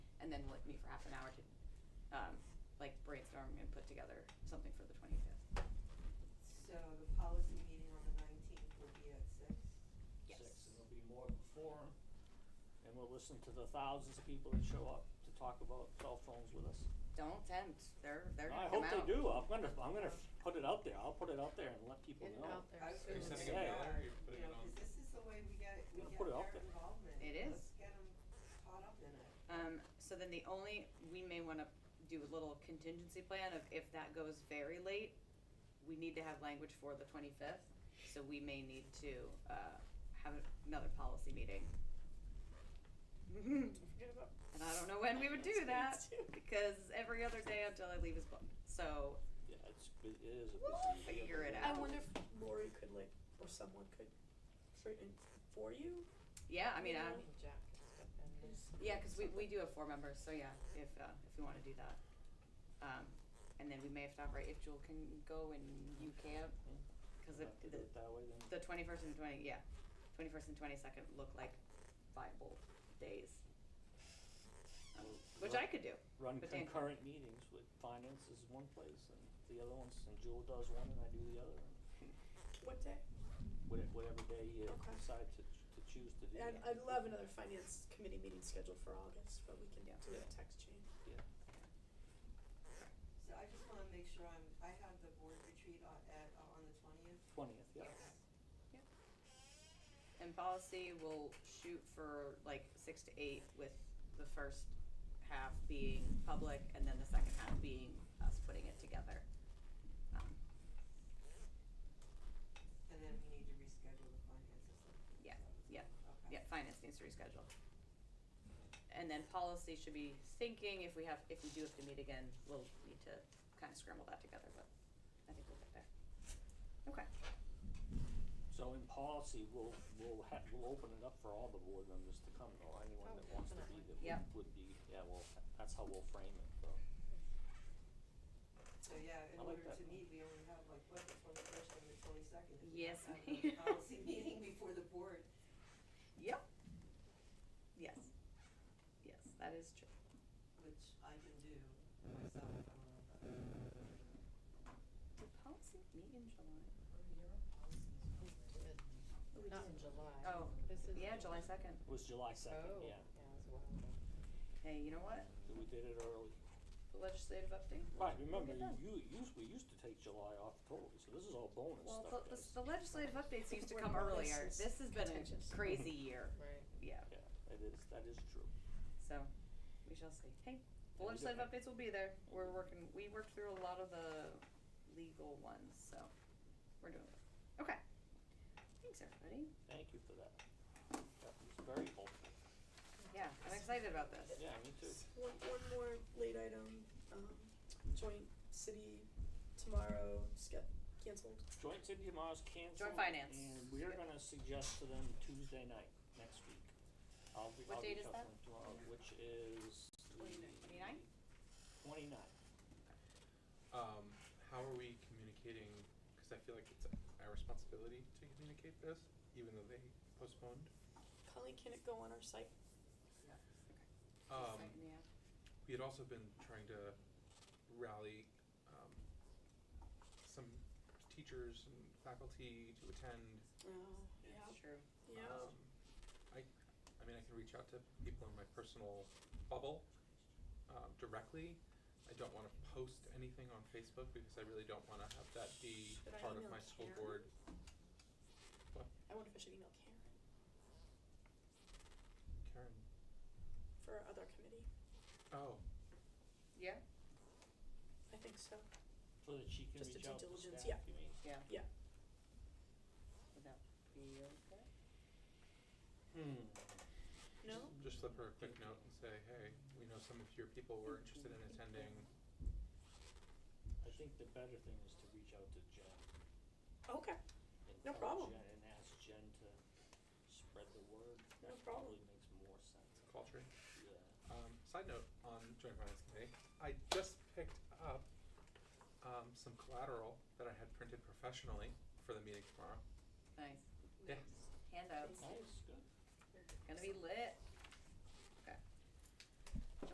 and then like me for half an hour to, um, like brainstorm and put together something for the twenty-fifth. So the policy meeting on the nineteenth will be at six? Yes. six, and there'll be more before, and we'll listen to the thousands of people that show up to talk about cell phones with us. Don't tempt, they're, they're I gonna come hope out. they do, I'm gonna, I'm gonna put it out there, I'll put it out there and let people Get it know. out there. I Are you feel sending like, it yeah, out or are you putting you know, it on? 'cause this is the way we get, we You're gonna get put it out their there. involvement. It Let's is. get 'em caught up in it. Um, so then the only, we may wanna do a little contingency plan of if that goes very late, we need to have language for the twenty-fifth, so we may need to, uh, have another policy meeting. And I don't know when we would do that, because every other day until I leave is booked, so Yeah, it's, bu- it is a busy. We'll figure it I out. wonder if Lori could like, or someone could, for, for you? Yeah, I mean, i Yeah. yeah, cause we, we do have four members, so yeah, if, uh, if we wanna do that. Um, and then we may have to operate if Jewel can go and you can't, cause Have it, to do the, it that way then. the twenty-first and twenty, yeah, twenty-first and twenty-second look like viable days. Um, We'll Which run- I could do, Run but Dan- concurrent meetings with finance is one place, and the other ones, and Jewel does one and I do the other, and What day? wha- whatever day you Okay. decide to, ch- to choose to do I'd, that. I'd love another finance committee meeting scheduled for August, but we can Yeah. do a text chain. So I just wanna make sure I'm, I have the board retreat on, at, uh, on the twentieth. Twentieth, yeah. and policy will shoot for like six to eight with the first half being public and then the second half being us putting it together. Um, And then we need to reschedule the finance or something. Yeah, So it's- yeah, Okay. Yeah, finance needs to reschedule. And then policy should be thinking, if we have, if we do have to meet again, we'll need to kind of scramble that together, but I think we'll get there. Okay, So in policy, we'll, we'll ha we'll open it up for all the board members to come, or anyone Oh, that wants to be, definitely. that would, Yep. would be, yeah, well, that's how we'll frame it, so. So yeah, in I like order that. to meet, we only have like, what, the twenty-first and the twenty-second? Yes, If we ma'am. don't have a policy meeting before the board. yep. Yes. Yes, that is true. Which I can do myself, I don't know about you. Did policy meet in July? Not in July. Oh, This is. yeah, July second. It was July second, Oh, yeah, yeah, it was a while ago. Hey, you know what? So we did it early. Legislative update? Right, remember, Look at you, you, used- we used to take July off totally, so this is all bonus Well, stuff, the, guys. the legislative updates used to Where come bonus earlier. is This has been contentious. a crazy year. Right. Yeah, Yeah, that is, that is true. so we shall see. Hey, the Yeah, we legislative don't- updates will be there. We're working, we worked through a lot of the legal ones, so we're doing it. Okay. Thanks, everybody. Thank you for that. That was very helpful. Yeah, I'm excited about this. Yeah, me too. One, one more late item, um, joint city tomorrow, just got canceled. Joint City Tomorrow's canceled. Finance. And we're gonna suggest to them Tuesday night, next week. I'll be, What I'll date reach is that? out to them tomorrow, which is Twenty-nine? Twenty-nine. Um, how are we communicating, cause I feel like it's our responsibility to communicate this, even though they postponed. Colleen, can it go on our site? Um, Second, yeah. we had also been trying to rally, um, some teachers and faculty to attend. Oh, yeah, That's true. yeah. Um, I, I mean, I can reach out to people in my personal bubble, um, directly. I don't wanna post anything on Facebook because I really don't wanna have that be Should I part of email my school Karen? board. I wonder if I should email Karen Karen, for our other committee. oh, Yeah? I think so. So that she can Just a reach due out to diligence, staff, yeah. you mean? Yeah. Yeah. Would that be okay? Hmm. No? just slip her a quick note and say, hey, we know some of your people were interested in attending. I think the better thing is to reach out to Jen. Okay, and No tell problem. Jen And ask Jen to spread the word. No That problem. Probably makes more sense, Culture. yeah. Um, side note on joint finance committee, I just picked up um, some collateral that I had printed professionally for the meeting tomorrow. Nice. Yeah. Handouts. Nice, good. Gonna be lit.